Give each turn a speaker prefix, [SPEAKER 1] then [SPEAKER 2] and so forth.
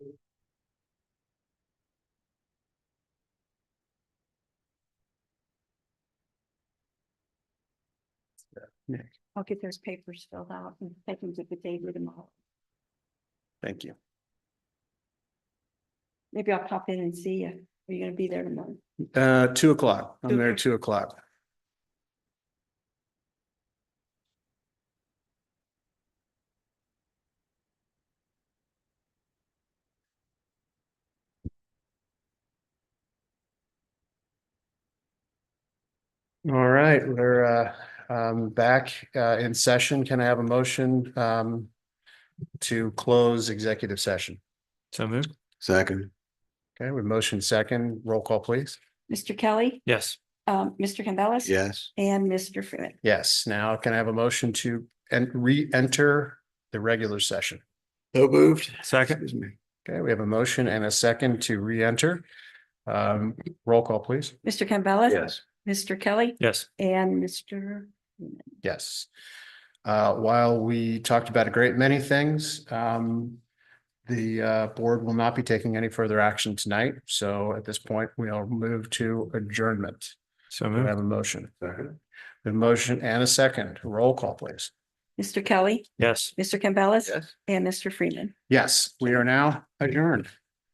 [SPEAKER 1] I'll get those papers filled out and take them to the David tomorrow.
[SPEAKER 2] Thank you.
[SPEAKER 1] Maybe I'll pop in and see you. Are you gonna be there tomorrow?
[SPEAKER 2] Uh, two o'clock. I'm there at
[SPEAKER 1] Okay.
[SPEAKER 2] two o'clock. All right, we're uh, um, back uh, in session. Can I have a motion um, to close executive session?
[SPEAKER 3] So moved.
[SPEAKER 4] Second,
[SPEAKER 2] Okay, we motion second, roll call, please.
[SPEAKER 1] Mr. Kelly,
[SPEAKER 3] Yes.
[SPEAKER 1] um, Mr. Campbellis.
[SPEAKER 4] yes.
[SPEAKER 1] And Mr. Freeman.
[SPEAKER 2] Yes, now can I have a motion to and re-enter the regular session?
[SPEAKER 4] So moved.
[SPEAKER 3] Second.
[SPEAKER 4] Excuse me.
[SPEAKER 2] Okay, we have a motion and a second to re-enter. Um, roll call, please.
[SPEAKER 1] Mr. Campbellis.
[SPEAKER 4] Yes.
[SPEAKER 1] Mr. Kelly
[SPEAKER 3] Yes.
[SPEAKER 1] and Mr.
[SPEAKER 2] Yes. Uh, while we talked about a great many things, um, the uh, board will not be taking any further action tonight. So at this point, we'll move to adjournment.
[SPEAKER 3] So
[SPEAKER 2] We
[SPEAKER 3] moved.
[SPEAKER 2] have a motion,
[SPEAKER 4] Second,
[SPEAKER 2] a motion and a second. Roll call, please.
[SPEAKER 1] Mr. Kelly,
[SPEAKER 3] Yes.
[SPEAKER 1] Mr. Campbellis
[SPEAKER 4] yes.
[SPEAKER 1] and Mr. Freeman.
[SPEAKER 2] Yes, we are now adjourned.